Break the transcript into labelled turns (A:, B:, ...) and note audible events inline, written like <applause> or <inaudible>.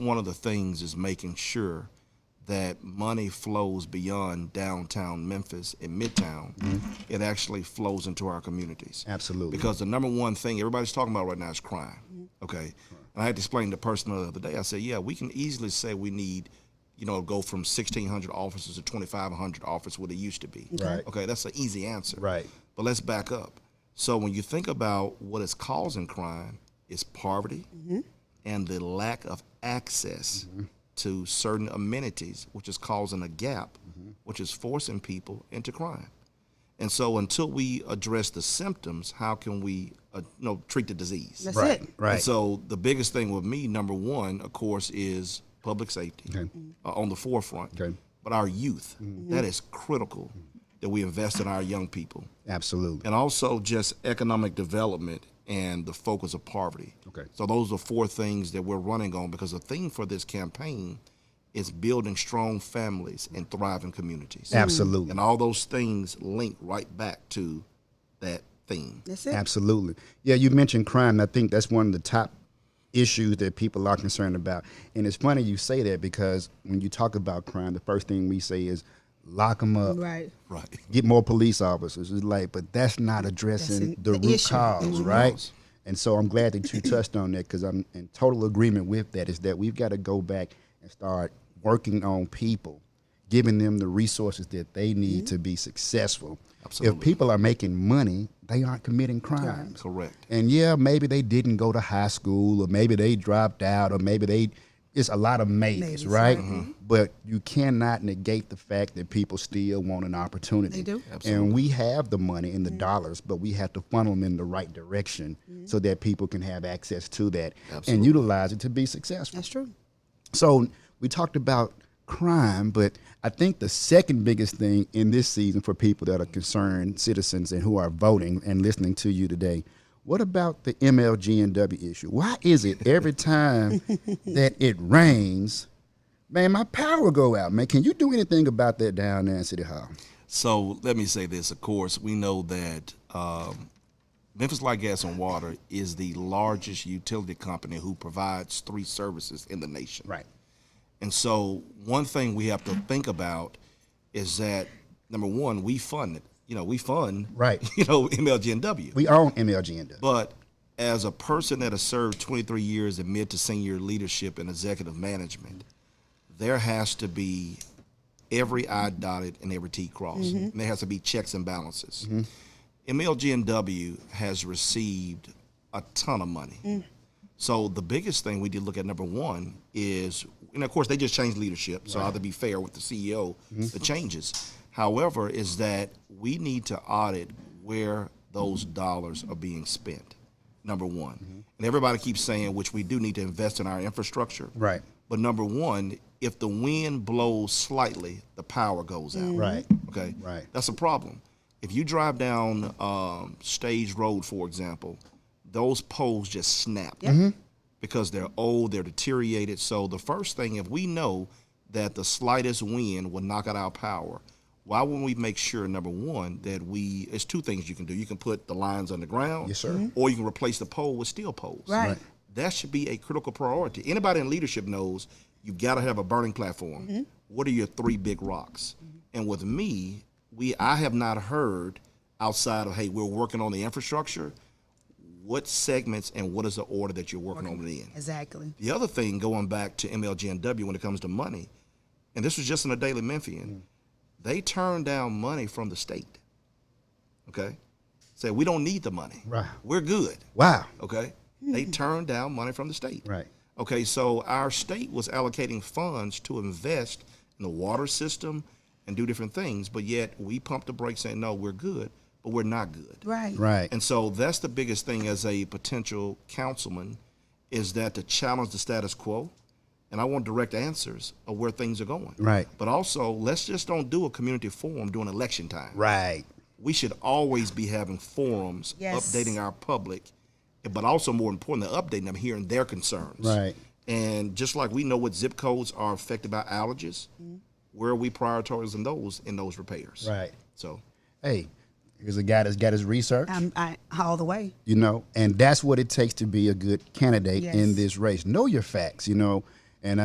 A: one of the things is making sure that money flows beyond downtown Memphis and Midtown. It actually flows into our communities.
B: Absolutely. Mm-hmm.
A: Because the number one thing everybody's talking about right now is crime. Okay. And I had to explain to the person the other day, I said, yeah, we can easily say we need, you know, go from 1,600 officers to 2,500 officers, what it used to be.
B: Right.
A: Okay. That's an easy answer.
B: Right.
A: But let's back up. So when you think about what is causing crime, it's poverty
B: Mm-hmm.
A: and the lack of access to certain amenities, which is causing a gap,
B: Mm-hmm.
A: which is forcing people into crime. And so until we address the symptoms, how can we uh, you know, treat the disease?
C: That's
B: Right.
C: it.
B: Right.
A: And so the biggest thing with me, number one, of course, is public safety
B: Okay.
A: uh, on the forefront.
B: Okay.
A: But our youth, that is critical that we invest in our young people
B: Absolutely.
A: and also just economic development and the focus of poverty.
B: Okay.
A: So those are four things that we're running on because the theme for this campaign is building strong families and thriving communities.
B: Absolutely.
A: And all those things link right back to that theme.
C: That's it.
B: Absolutely. Yeah, you mentioned crime. I think that's one of the top issues that people are concerned about. And it's funny you say that because when you talk about crime, the first thing we say is lock them up.
C: Right.
A: Right.
B: get more police officers. It's like, but that's not addressing
C: That's it,
B: the,
C: the
B: root
C: issue.
B: cause,
C: Mhm.
B: right?
A: cause.
B: And so I'm glad that
C: <coughs>
B: you touched on that because I'm in total agreement with that. Is that we've got to go back and start working on people, giving them the resources that they need
C: Mm-hmm.
B: to be successful.
A: Absolutely.
B: If people are making money, they aren't committing crimes.
A: Correct.
B: And yeah, maybe they didn't go to high school, or maybe they dropped out, or maybe they. It's a lot of maybes,
C: Maybes,
B: right?
C: right.
B: But you cannot negate the fact that people still want an opportunity.
C: They do.
B: And we have the money and the dollars, but we have to funnel them in the right direction so that people can have access to that and utilize it to be successful.
C: That's true.
B: So we talked about crime, but I think the second biggest thing in this season for people that are concerned citizens and who are voting and listening to you today, what about the MLGNW issue? Why is it every time that it rains, man, my power go out, man? Can you do anything about that down there in City Hall?
A: So let me say this. Of course, we know that um, Memphis Light Gas and Water is the largest utility company who provides three services in the nation.
B: Right.
A: And so one thing we have to think about is that number one, we fund it. You know, we fund
B: Right.
A: <laughs> You know, MLGNW.
B: We own MLGNW.
A: but as a person that has served 23 years in mid to senior leadership and executive management, there has to be every I dotted and every T crossed. And there has to be checks and balances. MLGNW has received a ton of money. So the biggest thing we did look at number one is, and of course they just changed leadership. So I have to be fair with the CEO, the changes. However, is that we need to audit where those dollars are being spent. Number one, and everybody keeps saying, which we do need to invest in our infrastructure.
B: Right.
A: But number one, if the wind blows slightly, the power goes out.
B: Mm-hmm. Right.
A: Okay.
B: Right.
A: That's a problem. If you drive down um, Stage Road, for example, those poles just snap
B: Mm-hmm.
A: because they're old, they're deteriorated. So the first thing, if we know that the slightest wind will knock out our power, why wouldn't we make sure number one that we? It's two things you can do. You can put the lines underground,
B: Yes, sir. Mhm.
A: or you can replace the pole with steel poles.
C: Right. Right.
A: That should be a critical priority. Anybody in leadership knows you've got to have a burning platform. What are your three big rocks? And with me, we I have not heard outside of hey, we're working on the infrastructure. What segments and what is the order that you're working on it in?
C: Exactly.
A: The other thing, going back to MLGNW when it comes to money, and this was just in the Daily Memphian, they turned down money from the state. Okay? Say, we don't need the money.
B: Right.
A: We're good.
B: Wow.
A: Okay? They turned down money from the state.
B: Hmm. Right.
A: Okay, so our state was allocating funds to invest in the water system and do different things, but yet we pumped the brakes saying, no, we're good, but we're not good.
C: Right.
B: Right.
A: And so that's the biggest thing as a potential councilman is that to challenge the status quo. And I want direct answers of where things are going.
B: Right.
A: But also, let's just don't do a community forum during election time.
B: right.
A: We should always be having forums,
C: Yes.
A: updating our public, but also more importantly, updating them, hearing their concerns.
B: Right.
A: And just like we know what zip codes are affected by allergies, where are we prioritizing those in those repairs?
B: Right.
A: So
B: Hey, here's a guy that's got his research.
C: I'm Um, I, all the way.
B: you know and that's what it takes to be a good candidate in
C: Yes.
B: this race know your facts you know